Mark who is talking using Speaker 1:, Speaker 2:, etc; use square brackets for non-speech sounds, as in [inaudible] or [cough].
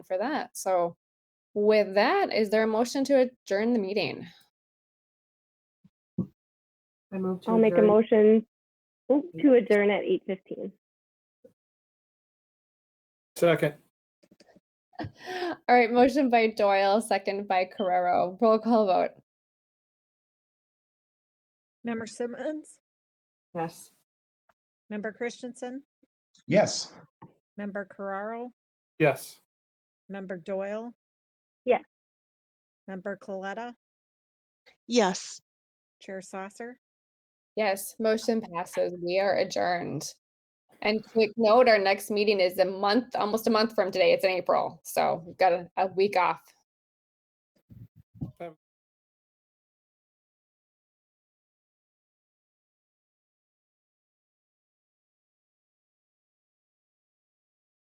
Speaker 1: for that. So with that, is there a motion to adjourn the meeting? [gasps]
Speaker 2: I move to
Speaker 3: I'll make a
Speaker 2: adjourn. Mm-hmm.
Speaker 3: motion oh, to adjourn at eight fifteen.
Speaker 4: Second,
Speaker 1: All right, motion by Doyle, second by Carrero. Roll call vote.
Speaker 5: Member Simmons,
Speaker 2: Yes.
Speaker 5: Member Christensen,
Speaker 6: Yes.
Speaker 5: Member Carraro,
Speaker 4: yes.
Speaker 5: Member Doyle.
Speaker 3: Yes.
Speaker 5: Member Coletta,
Speaker 7: Yes.
Speaker 5: Chair Saucer.
Speaker 1: Yes, motion passes. We are adjourned. And quick note, our next meeting is a month, almost a month from today. It's in April. So we've got a, a week off.